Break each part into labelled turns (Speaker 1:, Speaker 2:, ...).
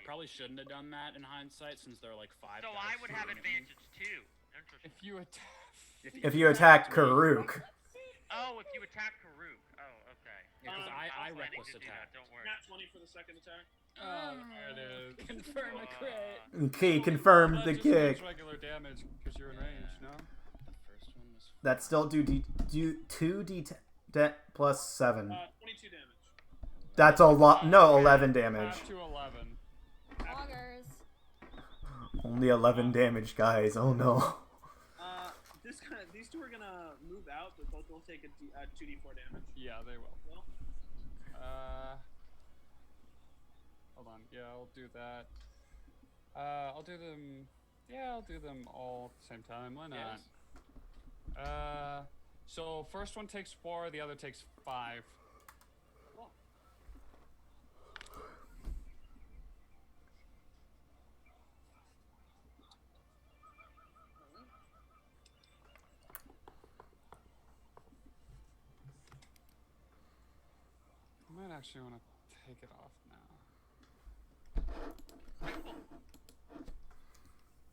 Speaker 1: probably shouldn't have done that in hindsight since there are like five.
Speaker 2: So I
Speaker 1: guys
Speaker 2: would have
Speaker 1: shooting at me.
Speaker 2: advantage too. Interesting.
Speaker 3: If you attack.
Speaker 4: If you attack Karuk,
Speaker 2: Oh, if you attack Karuk. Oh, okay.
Speaker 1: Yeah, 'cause
Speaker 2: Um,
Speaker 1: I- I
Speaker 2: was planning
Speaker 1: reckless
Speaker 2: to do
Speaker 1: attacked.
Speaker 2: That. Don't worry.
Speaker 5: Nat 20 for the second attack.
Speaker 3: Oh, there it is.
Speaker 1: Confirm a crit.
Speaker 2: Uh,
Speaker 4: he confirmed
Speaker 3: That
Speaker 4: the
Speaker 3: just means
Speaker 4: kick.
Speaker 3: regular damage because you're in range, no?
Speaker 1: The first one was
Speaker 4: That still do d do two d de- plus seven.
Speaker 5: Uh, 22 damage.
Speaker 4: That's a lot. No, eleven damage.
Speaker 3: Up to 11.
Speaker 6: Augers.
Speaker 4: Only eleven damage, guys. Oh no.
Speaker 5: Uh, this kind of, these two are gonna move out, but both will take a D, uh, 2d4 damage.
Speaker 3: Yeah, they will.
Speaker 5: Well,
Speaker 3: Uh, hold on. Yeah, I'll do that. Uh, I'll do them. Yeah, I'll do them all at the same time. Why not?
Speaker 1: Yes.
Speaker 3: Uh, so first one takes four, the other takes five. I might actually want to take it off now.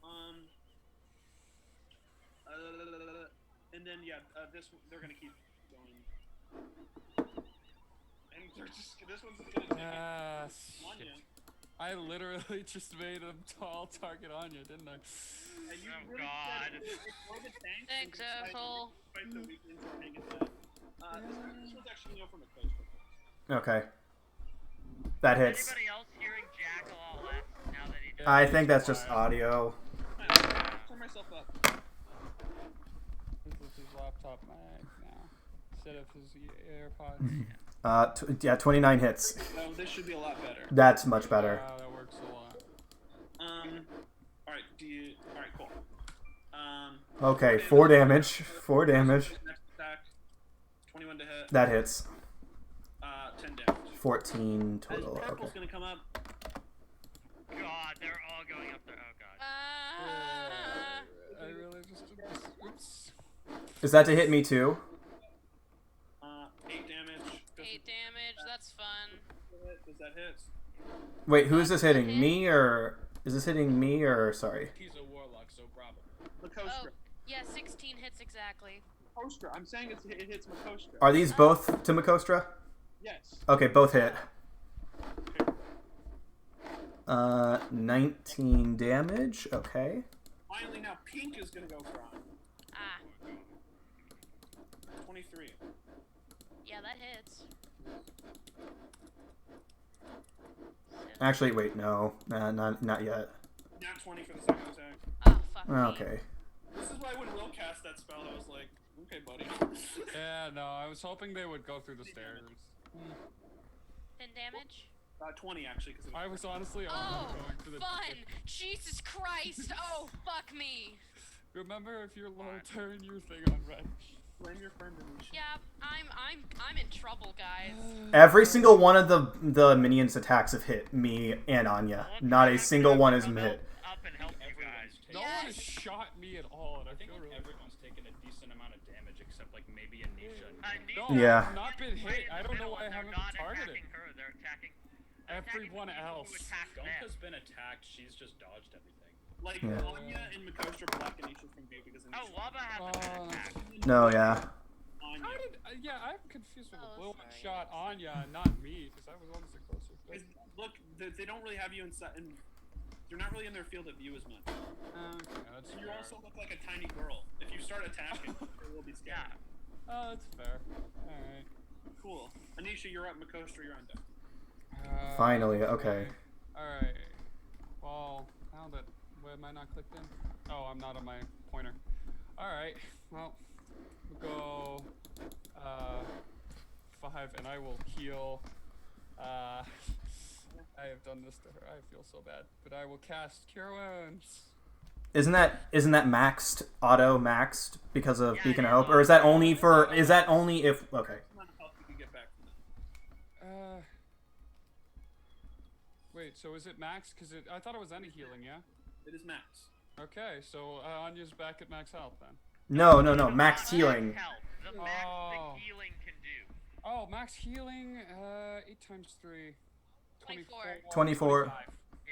Speaker 5: um, uh, and then yeah, uh, this one- they're gonna keep going. And they're just this one's gonna take it.
Speaker 3: Ah,
Speaker 5: Anya,
Speaker 3: shit. I literally just made a tall target on you, didn't I?
Speaker 5: and you
Speaker 2: Oh,
Speaker 5: really
Speaker 2: God.
Speaker 5: said it. Destroy the tanks and
Speaker 7: Thanks,
Speaker 5: decide to
Speaker 7: asshole.
Speaker 5: fight the weak links and hang it down. Uh, this, one- this one's actually going from a close range.
Speaker 4: Okay. That hits.
Speaker 2: Anybody else hearing Jack all that now that he does?
Speaker 4: I think that's just audio.
Speaker 5: Alright, Turn myself up.
Speaker 3: This is his laptop mic now. Instead of his AirPods.
Speaker 4: Uh, t- yeah, twenty nine hits.
Speaker 5: Oh, this should be a lot better.
Speaker 4: That's much better.
Speaker 3: Wow, that works a lot.
Speaker 5: Um, all right. Do you? All right. Cool. Um, uh,
Speaker 4: Okay, four damage. Four damage.
Speaker 5: next attack, twenty-one to hit.
Speaker 4: That hits.
Speaker 5: Uh, ten damage.
Speaker 4: Fourteen
Speaker 5: As
Speaker 4: total.
Speaker 5: Tackle's
Speaker 4: Okay.
Speaker 5: gonna come up.
Speaker 2: God, they're all going up there. Oh God.
Speaker 7: Uh, Ah.
Speaker 3: I really just did this. Oops.
Speaker 4: Is that to hit me too?
Speaker 5: Uh, eight damage. Does
Speaker 7: Eight damage. That's fun.
Speaker 5: it hit? Does that hit?
Speaker 4: Wait, who is this hitting? Me or is this hitting me or sorry?
Speaker 1: He's a warlock, so probably.
Speaker 7: Oh,
Speaker 5: Makostra.
Speaker 7: yeah, 16 hits exactly.
Speaker 5: Makostra. I'm saying it's, it hits Makostra.
Speaker 4: Are these both to Makostra?
Speaker 5: yes.
Speaker 4: Okay, both hit. Uh, 19 damage. Okay.
Speaker 5: Finally, now Pink is gonna go for on.
Speaker 7: Ah,
Speaker 5: Twenty-three.
Speaker 7: yeah, that hits.
Speaker 4: Actually, wait, no, nah, not not yet.
Speaker 5: Not twenty for the second attack.
Speaker 7: Oh, fuck. me.
Speaker 4: Okay.
Speaker 5: This is why when Will cast that spell, I was like, okay, buddy.
Speaker 3: Yeah, no, I was hoping they would go through the stairs.
Speaker 7: 10 damage.
Speaker 5: uh, twenty actually, because
Speaker 3: I was honestly
Speaker 7: Oh,
Speaker 3: almost going for the.
Speaker 7: fun! Jesus Christ! Oh, fuck me!
Speaker 3: Remember, if you're low, turn your thing on red.
Speaker 5: blame your friend. and we should-
Speaker 7: Yeah, I'm, I'm, I'm in trouble, guys.
Speaker 4: Every single one of the the minions' attacks have hit me and Anya.
Speaker 2: Well, I'm
Speaker 4: Not a
Speaker 2: gonna
Speaker 4: single one is
Speaker 2: come
Speaker 4: hit.
Speaker 2: Up and help you guys.
Speaker 1: Everyone's taken.
Speaker 3: No one has
Speaker 7: Yes.
Speaker 3: shot me at all, and I
Speaker 1: I think
Speaker 3: feel really.
Speaker 1: everyone's taken a decent amount of damage except like maybe Anisha. and
Speaker 2: I
Speaker 1: Pink.
Speaker 2: need
Speaker 3: No,
Speaker 4: Yeah.
Speaker 3: I've not been hit. I don't know why I
Speaker 2: they're
Speaker 3: haven't
Speaker 2: not
Speaker 3: been targeted.
Speaker 2: attacking her. They're attacking
Speaker 3: Everyone
Speaker 2: attacking the people who
Speaker 3: else.
Speaker 2: attacked them.
Speaker 1: Gonka's been attacked. She's just dodged everything.
Speaker 5: Like
Speaker 4: Yeah.
Speaker 5: Anya and Makostra block Anisha from view because
Speaker 2: Oh,
Speaker 5: Anisha.
Speaker 2: Waba hasn't been
Speaker 3: Uh,
Speaker 2: attacked.
Speaker 4: No, yeah.
Speaker 5: Anya.
Speaker 3: How did? Uh, yeah, I'm confused with
Speaker 7: Oh,
Speaker 3: the blue one
Speaker 7: sorry.
Speaker 3: shot Anya, and not me, because I was honestly closer. But,
Speaker 5: Is- Look, they, they don't really have you inside, and you're not really in their field of view as much.
Speaker 3: uh, okay, that's
Speaker 5: And you
Speaker 3: fair.
Speaker 5: also look like a tiny girl. If you start attacking, they will be scared.
Speaker 2: Yeah.
Speaker 3: Oh, that's fair. All right.
Speaker 5: Cool. Anisha, you're up. Makostra, you're on deck.
Speaker 3: Uh,
Speaker 4: Finally, okay.
Speaker 3: Alright. Well, now that. Where am I not clicked in? Oh, I'm not on my pointer. Alright. Well, we'll go. Uh, five, and I will heal. Uh, I have done this to her. I feel so bad. But I will cast Cure Wounds.
Speaker 4: Isn't that isn't that maxed auto maxed because of
Speaker 2: Yeah,
Speaker 4: Beacon of
Speaker 2: yeah.
Speaker 4: Hope, or is that only for is that only if okay?
Speaker 5: Come on, help you can get back from that.
Speaker 3: Uh. Wait, so is it max? Because it, I thought it was any healing, yeah?
Speaker 5: It is Max.
Speaker 3: Okay, so uh, Anya's back at max health then.
Speaker 4: No, no, no,
Speaker 2: The
Speaker 4: maxed
Speaker 2: Uh, max
Speaker 4: healing.
Speaker 2: help. The max
Speaker 3: Oh.
Speaker 2: the healing can do.
Speaker 3: Oh, max healing, uh, 8 times 3.
Speaker 7: 24.
Speaker 4: 24.
Speaker 3: 25.